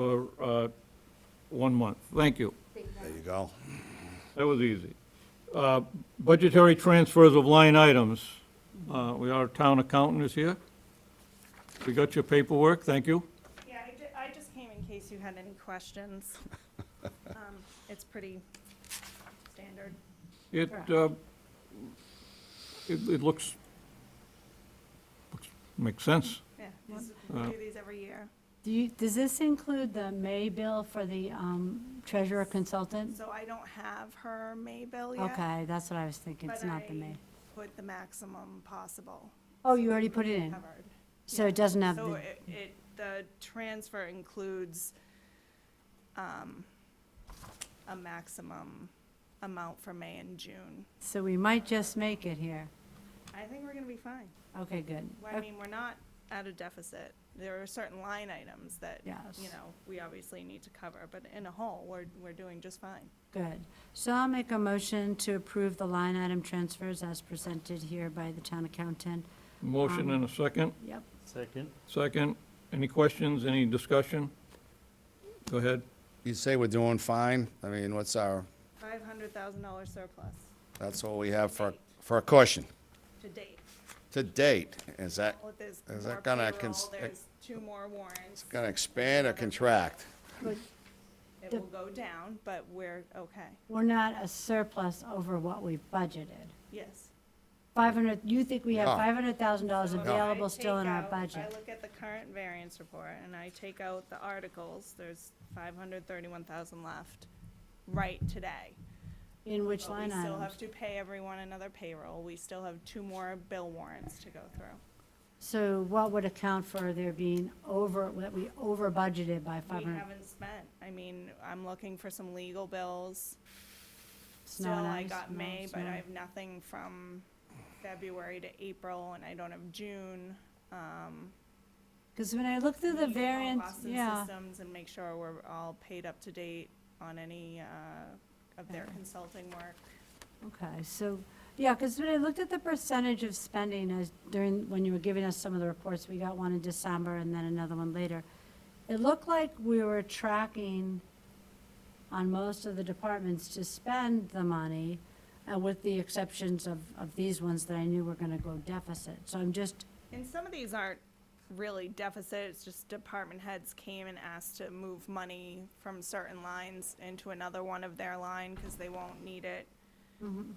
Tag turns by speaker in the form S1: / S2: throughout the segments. S1: uh, one month. Thank you.
S2: There you go.
S1: That was easy. Uh, Budgetary transfers of line items. Uh, We Our town accountant is here. We got your paperwork, thank you.
S3: Yeah, I ju- I just came in case you had any questions. Um, It's pretty standard.
S1: It,
S3: Correct.
S1: uh, it it looks, looks- makes sense.
S3: Yeah, these- we do these every year.
S4: Do you, does this include the May bill for the um, treasurer consultant?
S3: So I don't have her May bill yet.
S4: Okay, that's what I was thinking, it's not the May.
S3: But I put the maximum possible
S4: Oh, you already put it in,
S3: covered.
S4: so it doesn't have
S3: So
S4: Um, the,
S3: it, it, the transfer includes um, a maximum amount for May and June.
S4: so we might just make it here.
S3: I think we're gonna be fine.
S4: Okay, good.
S3: Well, I mean, we're not at a deficit. There are certain line items that, you
S4: Yes.
S3: know, we obviously need to cover, but in a whole, we're, we're doing just fine.
S4: Good. So I'll make a motion to approve the line item transfers as presented here by the town accountant.
S1: Motion and a second.
S4: Yep.
S5: Second.
S1: Second, any questions, any discussion? Go ahead.
S2: You say we're doing fine? I mean, what's our,
S3: Five hundred thousand dollar surplus
S2: that's all we have for, for a cushion
S3: to date.
S2: to date. Is that
S3: Well, there's
S2: Is that
S3: more
S2: gonna
S3: payroll,
S2: cons-
S3: there's two more warrants.
S2: going to expand or contract?
S3: It
S4: the-
S3: will go down, but we're okay.
S4: We're not a surplus over what we've budgeted.
S3: Yes.
S4: 500, you think we have
S2: No.
S4: $500,000
S3: So if I
S4: available still
S3: take
S4: in our
S3: out- I
S4: budget?
S3: look at the current variance report and I take out the articles, there's five hundred thirty-one thousand left right today.
S4: In which
S3: But
S4: line
S3: We still
S4: items?
S3: have to pay everyone another payroll. We still have two more bill warrants to go through.
S4: So what would account for there being over, that we over budgeted by
S3: We
S4: 500?
S3: haven't spent. I mean, I'm looking for some legal bills.
S4: Snow
S3: Still,
S4: and
S3: I
S4: ice,
S3: got
S4: snow,
S3: May, but
S4: snow.
S3: I have nothing from February to April and I don't have June. Um,
S4: Because when I look through the
S3: need to call
S4: variance,
S3: Boston
S4: yeah,
S3: Systems and make sure we're all paid up to date on any, uh, of their
S4: Okay.
S3: consulting work.
S4: okay, so, yeah, because when I looked at the percentage of spending as during, when you were giving us some of the reports, we got one in December and then another one later. It looked like we were tracking on most of the departments to spend the money, uh, with the exceptions of, of these ones that I knew were going to go deficit. So I'm just,
S3: And some of these aren't really deficit, it's just department heads came and asked to move money from certain lines into another one of their line, cause they won't need it. Um,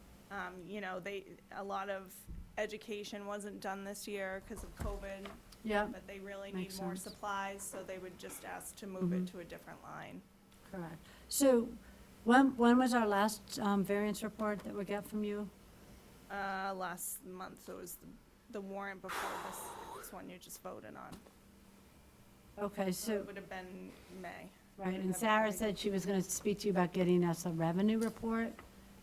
S3: you know, they, a lot of education wasn't done this year because of COVID,
S4: yeah,
S3: but they really need
S4: Makes
S3: more
S4: sense. Mm-hmm.
S3: supplies, so they would just ask to move it to a different line.
S4: correct. So when, when was our last um, variance report that we got from you?
S3: Uh, last month, so it was the- the warrant before this, this one you just voted on. So
S4: Okay, so.
S3: it would have been May.
S4: Right,
S3: Have
S4: and
S3: it
S4: Sarah
S3: ready.
S4: said she was going to speak to you about getting us a revenue report.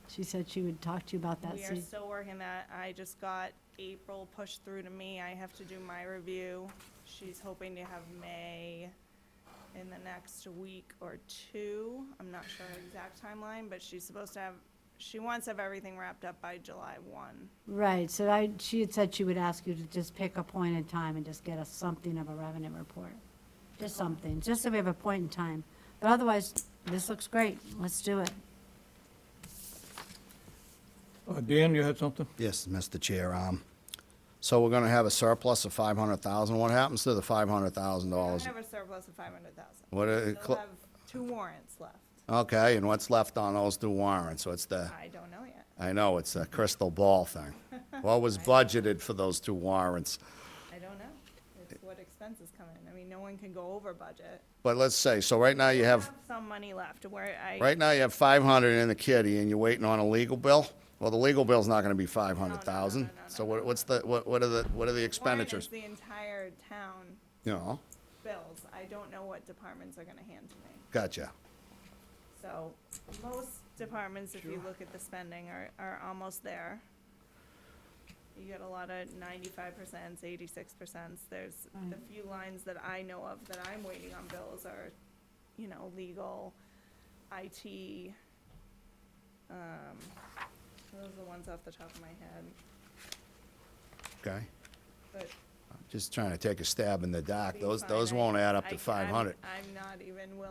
S4: She said she would talk to you about that.
S3: We
S4: so-
S3: are still working that. I just got April pushed through to me. I have to do my review. She's hoping to have May in the next week or two. I'm not sure her exact timeline, but she's supposed to have, she wants to have everything wrapped up by July one.
S4: Right, so I, she had said she would ask you to just pick a point in time and just get us something of a revenue report. Just something, just so we have a point in time. But otherwise, this looks great. Let's do it.
S1: Uh, Dan, you had something?
S2: Yes, Mr. Chair. Um, so we're going to have a surplus of 500,000. What happens to the
S3: I
S2: $500,000?
S3: have a surplus of five hundred thousand.
S2: What, uh,
S3: They'll
S2: cl-
S3: have two warrants left.
S2: okay, and what's left on those two warrants? What's the,
S3: I don't know yet.
S2: I know, it's a crystal ball thing. What was budgeted for those two warrants?
S3: I don't know. It's what expenses come in. I mean, no one can go over budget.
S2: But let's say, so right now you
S3: I
S2: have
S3: have some money left where I.
S2: Right now, you have five hundred in the kitty, and you're waiting on a legal bill? Well, the legal bill's not gonna be five hundred
S3: no,
S2: thousand,
S3: no, no,
S2: so
S3: no,
S2: what, what's the, what, what are the, what are the
S3: warrant
S2: expenditures?
S3: is The entire town
S2: You know,
S3: bills. I don't know what departments are gonna hand to me.
S2: gotcha.
S3: So most departments, if you look at the spending, are, are almost there. You get a lot of ninety-five percents, eighty-six percents. There's the
S4: Right.
S3: few lines that I know of that I'm waiting on bills are, you know, legal, IT. Um, those are the ones off the top of my head,
S2: Okay,
S3: but.
S2: just trying to take a stab in the dark,
S3: being
S2: those,
S3: fine,
S2: those
S3: I-
S2: won't add up
S3: I-
S2: to
S3: I'm-
S2: five hundred.
S3: I'm not even willing